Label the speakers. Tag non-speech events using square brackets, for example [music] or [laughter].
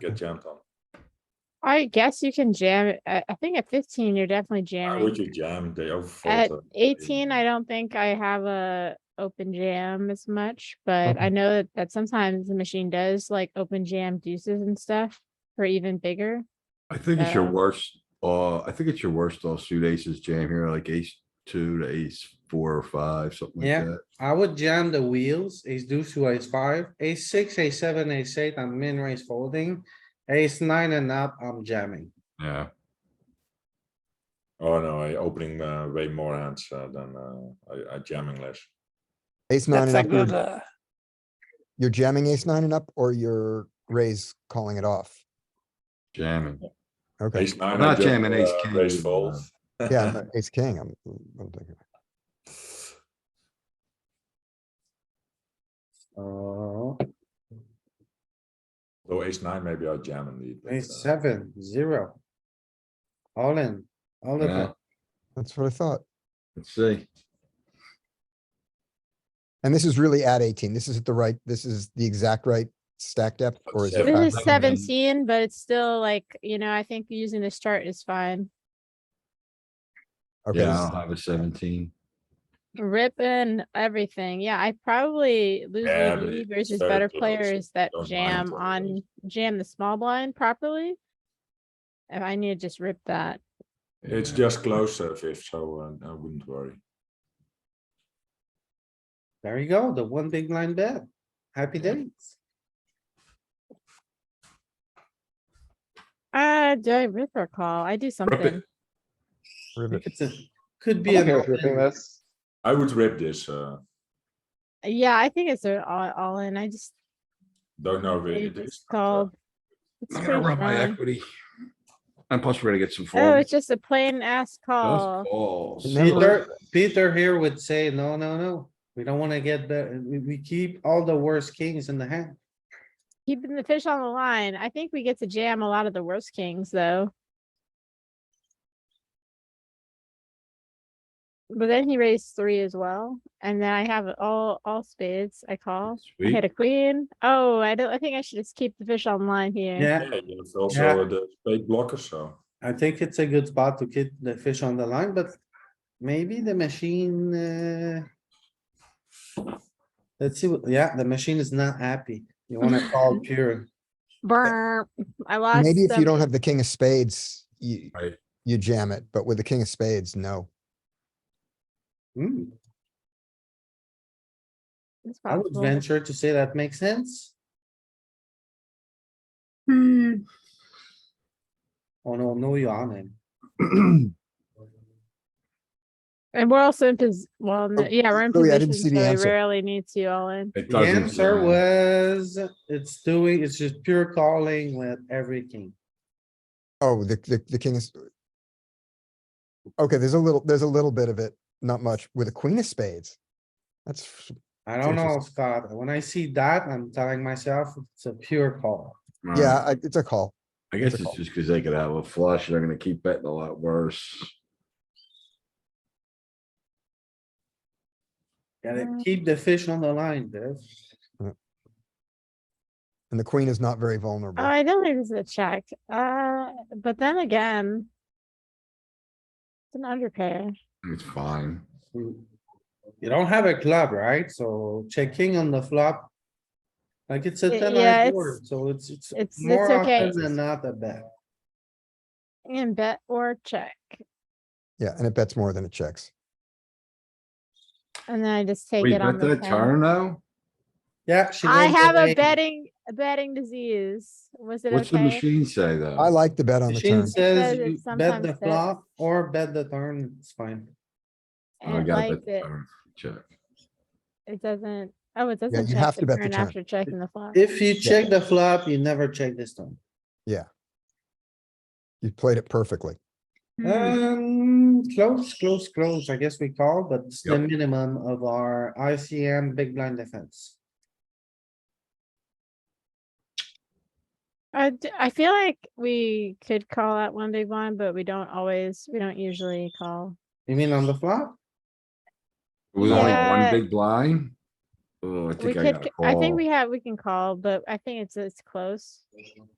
Speaker 1: get jammed on.
Speaker 2: I guess you can jam. it- I, I think at fifteen, you're definitely
Speaker 1: Why would
Speaker 2: jamming.
Speaker 1: you jam? They
Speaker 2: At
Speaker 1: overfold.
Speaker 2: eighteen, I don't think I have a open jam as much, but I know that, that sometimes the machine does like open jam deuces and stuff for even bigger.
Speaker 3: I think it's your
Speaker 2: Uh,
Speaker 3: worst, uh, I think it's your worst all suit aces jam here, like ace two to ace four or five, something
Speaker 4: Yeah.
Speaker 3: like that.
Speaker 4: I would jam the wheels, ace deuce, two, ace five, ace six, ace seven, ace eight, I'm min raise folding. Ace nine and up, I'm jamming.
Speaker 3: Yeah,
Speaker 1: Oh, no, I opening uh, way more hands uh, than uh, I, I jamming less.
Speaker 5: Ace nine
Speaker 6: That's
Speaker 5: and
Speaker 6: a
Speaker 5: up,
Speaker 6: good,
Speaker 5: you're-
Speaker 6: uh,
Speaker 5: you're jamming ace nine and up or you're raise calling it off.
Speaker 3: jamming.
Speaker 5: Okay,
Speaker 1: Ace nine.
Speaker 3: I'm
Speaker 1: I
Speaker 3: not
Speaker 1: just,
Speaker 3: jamming ace
Speaker 1: uh,
Speaker 3: king
Speaker 1: Raise
Speaker 3: either,
Speaker 1: fold.
Speaker 5: yeah, but ace king, I'm, I'm thinking.
Speaker 4: Oh,
Speaker 1: Though ace nine, maybe I jam indeed. but,
Speaker 4: ace
Speaker 1: uh,
Speaker 4: seven, zero. All in, all the
Speaker 3: Yeah,
Speaker 4: time.
Speaker 5: That's what I thought.
Speaker 3: Let's see.
Speaker 5: And this is really at eighteen. This is at the right, this is the exact right stack depth or is it?
Speaker 1: Seven.
Speaker 5: back-
Speaker 2: This is
Speaker 3: that would have been-
Speaker 2: seventeen, but it's still like, you know, I think using this chart is fine.
Speaker 5: Okay,
Speaker 3: Yeah,
Speaker 5: this
Speaker 3: I'll
Speaker 5: is-
Speaker 3: have a seventeen.
Speaker 2: Rip and everything. Yeah, I probably lose
Speaker 1: Yeah,
Speaker 2: lead
Speaker 1: but
Speaker 2: lead
Speaker 1: it's
Speaker 2: versus
Speaker 1: very
Speaker 2: better
Speaker 1: close.
Speaker 2: players that
Speaker 1: Don't mind
Speaker 2: jam
Speaker 1: what it
Speaker 2: on,
Speaker 1: is.
Speaker 2: jam the small blind properly. If I need to just rip that.
Speaker 1: It's
Speaker 3: Yeah.
Speaker 1: just close uh, fifth, so uh, I wouldn't worry.
Speaker 4: There you go, the one big blind bet. Happy days.
Speaker 2: Uh, do I rip or call? I do something.
Speaker 5: ribbit.
Speaker 4: It's a, could be. an
Speaker 7: Okay,
Speaker 4: all
Speaker 7: with ripping
Speaker 4: in.
Speaker 7: this.
Speaker 1: I would rip this. Uh,
Speaker 2: Yeah, I think it's a all, all in. I just,
Speaker 1: don't know if
Speaker 2: I
Speaker 1: it is.
Speaker 2: just called. It's
Speaker 3: I'm
Speaker 2: pretty
Speaker 3: gonna rub my
Speaker 2: fine.
Speaker 3: equity. And plus, we're gonna get some
Speaker 2: Oh, it's
Speaker 3: folds.
Speaker 2: just a plain ass call.
Speaker 3: Just Calls.
Speaker 4: Peter, Peter here would say, no, no, no, we don't wanna get the, we, we keep all the worst kings in the hand.
Speaker 2: Keeping the fish on the line. I think we get to jam a lot of the worst kings, though. But then he raised three as well, and then I have all, all spades. I call. I hit
Speaker 3: Sweet.
Speaker 2: a queen. Oh, I don't, I think I should just keep the fish on the line here.
Speaker 4: Yeah,
Speaker 1: Yeah, you have also
Speaker 4: Yeah.
Speaker 1: uh, the spade blocker, so
Speaker 4: I think it's a good spot to keep the fish on the line, but maybe the machine, uh. Let's see, what- yeah, the machine is not happy. You wanna call pure.
Speaker 2: Burp. I lost.
Speaker 5: Maybe if you
Speaker 2: some-
Speaker 5: don't have the king of spades, you,
Speaker 1: Right.
Speaker 5: you jam it, but with the king of spades, no.
Speaker 4: Hmm,
Speaker 2: It's
Speaker 4: I would
Speaker 2: possible.
Speaker 4: venture to say that makes sense. Oh, no, no, you're on him.
Speaker 2: And we're also in pos, well, no- yeah, we're in
Speaker 5: Louis, Oh, I didn't
Speaker 2: position,
Speaker 5: see the
Speaker 2: so we
Speaker 5: answer.
Speaker 2: rarely need to all in.
Speaker 3: [clears throat] It
Speaker 4: The
Speaker 3: doesn't
Speaker 4: answer
Speaker 3: jam.
Speaker 4: was, it's doing, it's just pure calling with every king.
Speaker 5: Oh, the, the, the king is. Okay, there's a little, there's a little bit of it, not much, with a queen of spades. That's,
Speaker 4: I don't know,
Speaker 5: Interesting.
Speaker 4: Scott. When I see that, I'm telling myself it's a pure call.
Speaker 1: Hmm.
Speaker 3: Alright,
Speaker 5: yeah, I- it's a call.
Speaker 3: I guess
Speaker 5: it's a
Speaker 3: it's
Speaker 5: call.
Speaker 3: just because they could have a flush. They're gonna keep betting a lot worse.
Speaker 4: Gotta
Speaker 2: Mm.
Speaker 4: keep the fish on the line, Dev.
Speaker 5: And the queen is not very vulnerable.
Speaker 2: Oh, I don't think this is a check, uh, but then again. It's an underpair.
Speaker 3: It's fine.
Speaker 4: You don't have a club, right? So checking on the flop. Like it's a
Speaker 2: Y-
Speaker 4: ten
Speaker 2: yeah,
Speaker 4: eye
Speaker 2: it's-
Speaker 4: board, so it's, it's
Speaker 2: it's-
Speaker 4: more
Speaker 2: it's okay.
Speaker 4: often than not a bet.
Speaker 2: And bet or check,
Speaker 5: Yeah, and it bets more than it checks.
Speaker 2: and then I just take
Speaker 3: We
Speaker 2: it on
Speaker 3: bet
Speaker 2: the
Speaker 3: that
Speaker 2: turn.
Speaker 3: turn though?
Speaker 4: Yeah. she
Speaker 2: I
Speaker 4: went
Speaker 2: have a
Speaker 4: away.
Speaker 2: betting, a betting disease. Was it
Speaker 3: What's the
Speaker 2: okay?
Speaker 3: machine say though?
Speaker 5: I like the bet on the
Speaker 4: Machine
Speaker 5: turn.
Speaker 4: says
Speaker 2: Because it
Speaker 4: you bet
Speaker 2: sometimes
Speaker 4: the
Speaker 2: says-
Speaker 4: flop or bet the turn, it's fine.
Speaker 3: Oh, I
Speaker 2: It
Speaker 3: gotta bet
Speaker 2: likes
Speaker 3: the
Speaker 2: it.
Speaker 3: turn. Check.
Speaker 2: It doesn't, oh, it doesn't
Speaker 5: you
Speaker 2: check
Speaker 5: have to
Speaker 2: the
Speaker 5: bet the
Speaker 2: turn
Speaker 5: turn.
Speaker 2: after checking the flop.
Speaker 4: If you check the flop, you never check this turn.
Speaker 5: You played it perfectly.
Speaker 2: Hmm.
Speaker 4: Um, close, close, close. I guess we call, but it's the minimum of our ICM big blind defense.
Speaker 2: I, d- I feel like we could call out one big one, but we don't always, we don't usually call.
Speaker 4: You mean on the flop?
Speaker 3: It was only
Speaker 2: Yeah.
Speaker 3: one big blind. Oh, I
Speaker 2: We
Speaker 3: think I
Speaker 2: could,
Speaker 3: gotta
Speaker 2: c- I think
Speaker 3: call.
Speaker 2: we have, we can call, but I think it's, it's close.